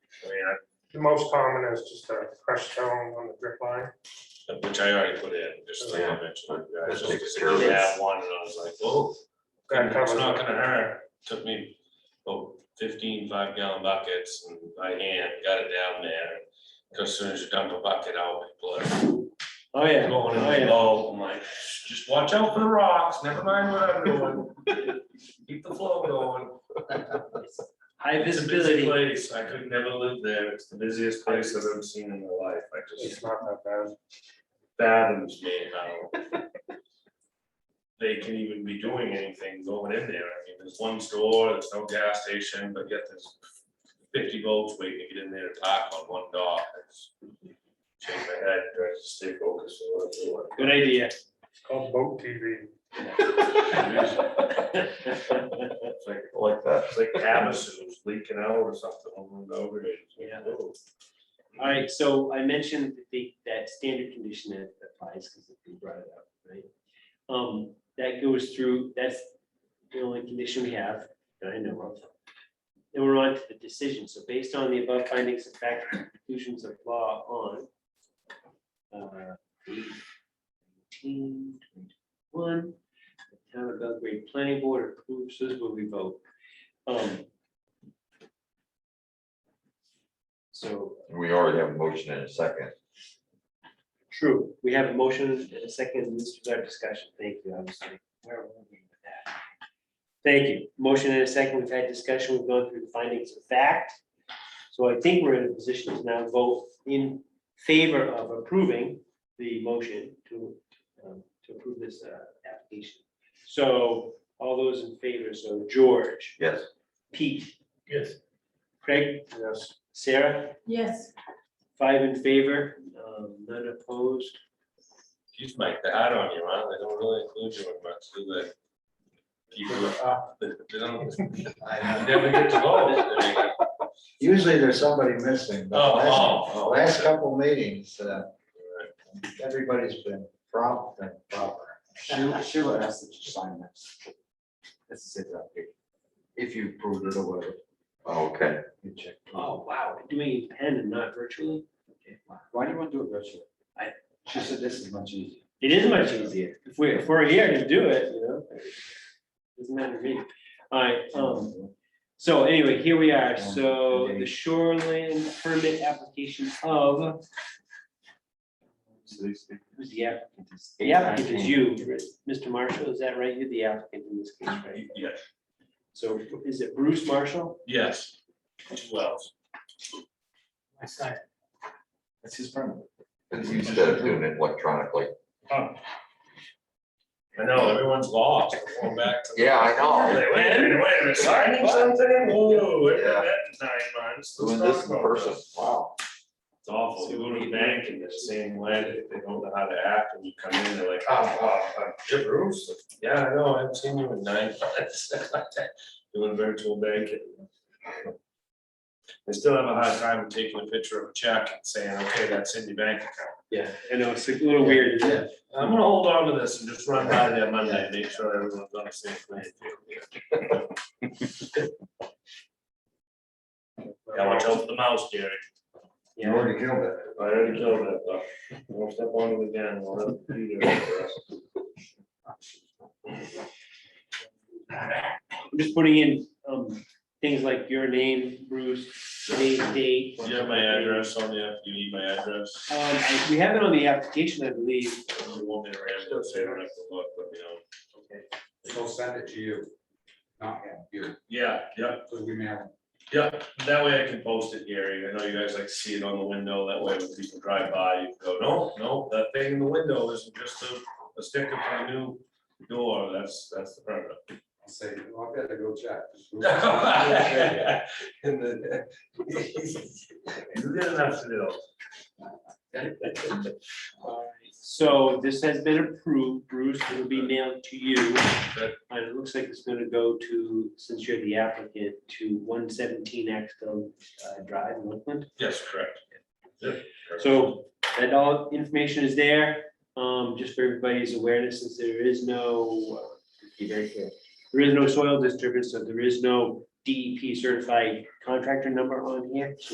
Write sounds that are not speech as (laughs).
The most common is just a crushed stone on the drip line. which I already put in, just to Yeah. mention. I That's just big really had one and I was like, whoa. That It's covers not it. gonna hurt, took me oh, 15 five gallon buckets and by hand, got it down there. 'Cause as soon as you dump a bucket out, it blood Oh, yeah, going in the bowl, I'm like, "Shh, just watch out for the rocks, never mind what I'm doing. Keep the flow going. High It's a visibility. busy place, I could never live there, it's the busiest place I've ever seen in my life, I just It's not that bad. fathoms me how they can even be doing anything going in there. I mean, there's one store, there's no gas station, but yet there's fifty volts waiting to get in there to talk on one dock. It's- Shake my head, try to stay focused on what I'm doing. Good idea. (laughs) It's called boat TV. It's like, like that. it's like Abacus was leaking out or something over and over. It's like, Yeah. whoa. All right, so I mentioned that the, that standard condition that applies, because we brought it up, right? Um, that goes through, that's the only condition we have, that I know of. Then we're on to the decision, so based on the above findings of fact, and conclusions of law on. uh, 18, 21, the town of Belgrade Planning Board approves, this will we vote. Um, So We already have a motion in a second. True, we have a motion and a second, this is our discussion, thank you, I'm sorry. Where were we with that? Thank you, motion and a second, we've had discussion, we've gone through the findings of fact. So I think we're in a position to now vote in favor of approving the motion to, um, to approve this, uh, application. So, all those in favor, so George, Yes. Pete, Yes. Craig, Yes, Sarah, Yes, five in favor, um, none opposed. Geez, Mike, they hard on you, huh? They don't really include you in much, do they? People are up, they they don't, you never get to vote. I mean, Usually there's somebody missing, but Oh, last, oh, oh. last couple meetings, uh, everybody's been prompt and proper. Sheila, Sheila asked that you sign this. Let's say that, if- if you approved it or whatever, Okay. you check. Oh, wow, we're doing it in pen and not virtually? Okay, why- Why do you want to do it virtually? I- She said this is much easier. It is much easier. If we, if we're here to do it, you know. Doesn't matter to me. Alright, um, so anyway, here we are. So the shoreline permit application of, So these people- who's the applicant? It's- The applicant is you, Mr. Marshall, is that right? You're the applicant in this case, Uh-huh. right? Yes, So is it Bruce Marshall? yes. Well, I signed it. That's his permit. Instead of doing it electronically. I know, everyone's lost, We're going back to. the- Yeah, I know. Wait, wait, a minute, wait, they're signing something, whoa, it Yeah. nine months. Doing Let's this talk in about person. this. Wow. It's awful, you go to the bank and they're saying, when, they don't know how to act, and you come in, they're like, ah, ah, ah, Jim Bruce, yeah, I know, I haven't seen you in nine (laughs) months. Doing virtual banking. They still have a hard time taking a picture of a check and saying, okay, that's in your bank account. Yeah, I know, it's a little weird. isn't it? I'm gonna hold on to this and just run by there Monday, and make sure everyone's on the same page. Yeah, watch out for the mouse, Gary. You already killed it. I already killed that, but we'll step on it again, we'll have to do that for us. I'm just putting in, um, things like your name, Bruce, today's date. Do you have my address on you? Do you need my address? Um, I- we have it on the application, I believe. If You want me to ramble, it, so you don't have to look, let me know. He'll send it to you, not him, you, Yeah, yeah, because we may have. yeah, that way I can post it, Gary, I know you guys like to see it on the window, that way when people drive by, you can go, no, no, that thing in the window isn't just a, a sticker for the new door, that's, that's the (laughs) permit. I'll say, well, I've got to go check. (laughs) And (laughs) then- You got enough to do. So this has been approved, Bruce, it'll be mailed to you. Good. And it looks like it's gonna go to, since you're the applicant, to one seventeen Axtel uh, Drive in Oakland. Yes, correct. So that all information is there, um, just for everybody's awareness, since there is no, uh, be very clear. There E is no soil disturbance, so there is no DEP certified contractor number on here, so